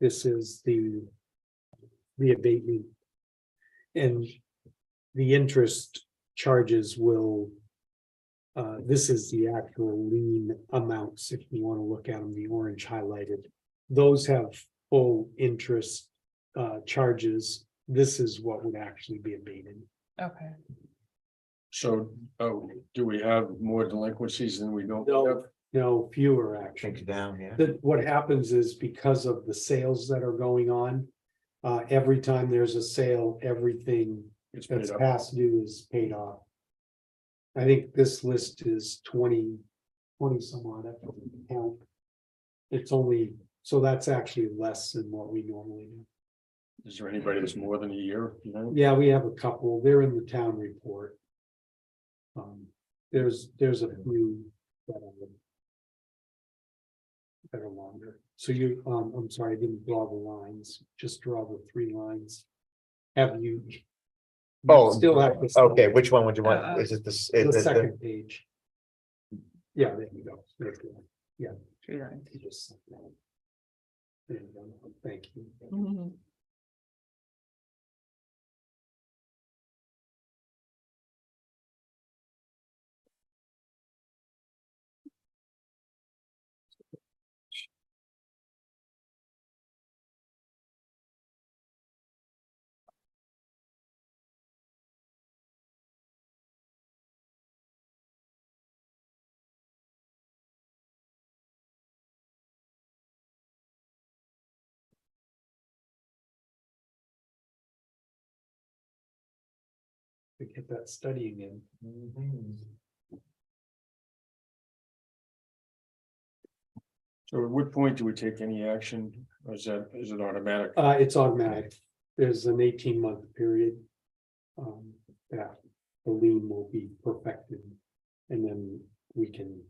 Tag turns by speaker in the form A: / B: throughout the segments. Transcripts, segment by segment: A: This is the, the abatement. And the interest charges will, uh, this is the actual lien amounts, if you want to look at them, the orange highlighted. Those have full interest, uh, charges. This is what would actually be abated.
B: Okay,
C: So, oh, do we have more delinquencies than we don't?
A: No.
C: have?
A: No, fewer actually.
D: it down, yeah.
A: That what happens is because of the sales that are going on, uh, every time there's a sale, everything
C: It's paid
A: that's
C: up.
A: past due is paid off. I think this list is 20 20 some odd. I don't count. It's only, so that's actually less than what we normally do.
C: Is there anybody that's more than a year, you know?
A: Yeah, we have a couple. They're in the town report. Um, there's, there's a few. that are That are longer. So you, um, I'm sorry, I didn't draw the lines, just draw the three lines. Have you? you
D: Oh,
A: Still have. to-
D: Okay, which one would you
B: Uh,
D: want? Is it this?
A: The
D: is it the-
A: second page. Yeah, there you go. There's the one.
B: three lines.
A: You just sent that. There you go. Thank you.
B: Mhm.
A: We get that studying in.
C: So at what point do we take any action? Or is that, is it automatic?
A: Uh, it's automatic. There's an eighteen month period. Um, that the lien will be perfected. And then we can.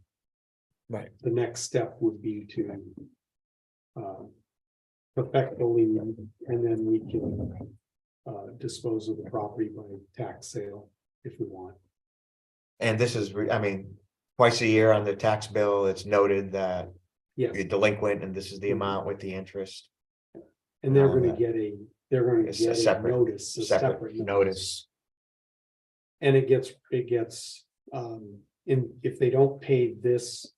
D: Right.
A: The next step would be to. um, Perfect the lien and then we can. Uh, dispose of the property by tax sale if we want.
D: And this is, re- I mean, twice a year on the tax bill, it's noted that
A: Yes, Mm-hmm.
D: you're delinquent and this is the amount with the interest.
A: and they're
D: Um,
A: gonna get a, they're gonna
D: It's a
A: get a
D: separate-
A: notice, a
D: Separate
A: separate
D: notice.
A: And it gets, it gets, um, in, if they don't pay this.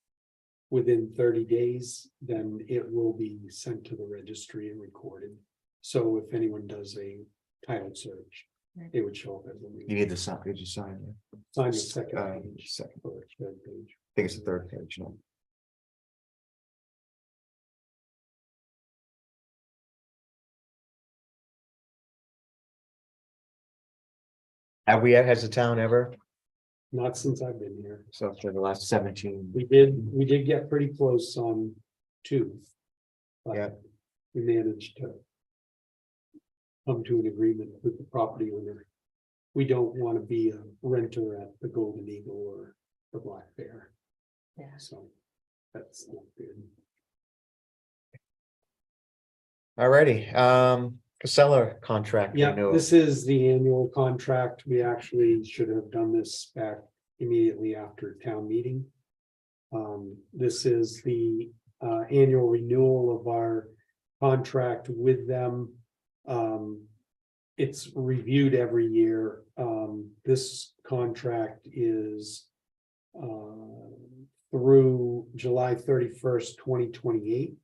A: Within thirty days, then it will be sent to the registry and recorded. So if anyone does a title search,
B: Right.
A: it would show up as a lien.
D: need the sign, did you sign?
A: Sign the second
D: uh,
A: page.
D: second.
A: or the third page.
D: I think it's the third page, no? Have we, has the town ever,
A: Not since I've been here.
D: so for the last seventeen,
A: We did, we did get pretty close on two. but
D: Yeah.
A: We managed to. Come to an agreement with the property owner. We don't want to be a renter at the Golden Eagle or the Black Bear,
B: Yeah.
A: so. That's not good.
D: alrighty, um, Casella contract.
A: Yeah,
D: renewal.
A: this is the annual contract. We actually should have done this back immediately after town meeting. Um, this is the uh annual renewal of our contract with them. Um, it's reviewed every year. Um, this contract is uh through July thirty-first, twenty twenty-eight.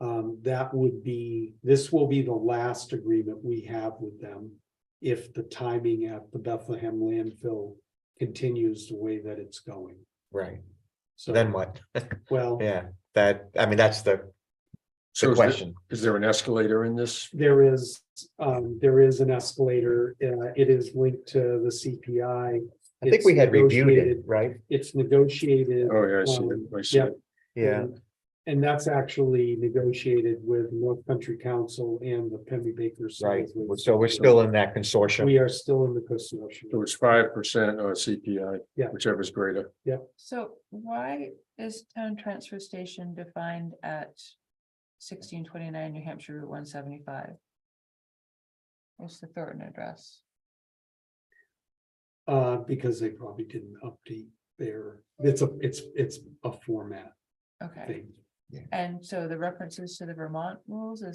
A: Um, that would be, this will be the last agreement we have with them. If the timing at the Bethlehem landfill continues the way that it's going.
D: Right,
A: So
D: then what?
A: Well,
D: Yeah, that, I mean, that's the,
C: So
D: the
C: is there-
D: question,
C: Is there an escalator in this?
A: there is, um, there is an escalator. Uh, it is linked to the CPI.
D: I think we
A: It's
D: had reviewed it,
A: negotiated-
D: right?
A: It's negotiated. um,
C: Oh, yeah, I see it. I see
A: Yeah.
C: it.
D: Yeah,
A: And- And that's actually negotiated with North Country Council and the Pemby Baker.
D: right,
A: Sons.
D: so we're still in that consortium,
A: We are still in the consortium.
C: So it's five percent uh, or CPI,
A: Yeah.
C: whichever is greater.
B: So why is town transfer station defined at sixteen twenty-nine New Hampshire Route one seventy-five? What's the Thornton address?
A: Uh, because they probably didn't update their, it's a, it's, it's a format
B: Okay,
A: thing.
B: and so the references to the Vermont rules is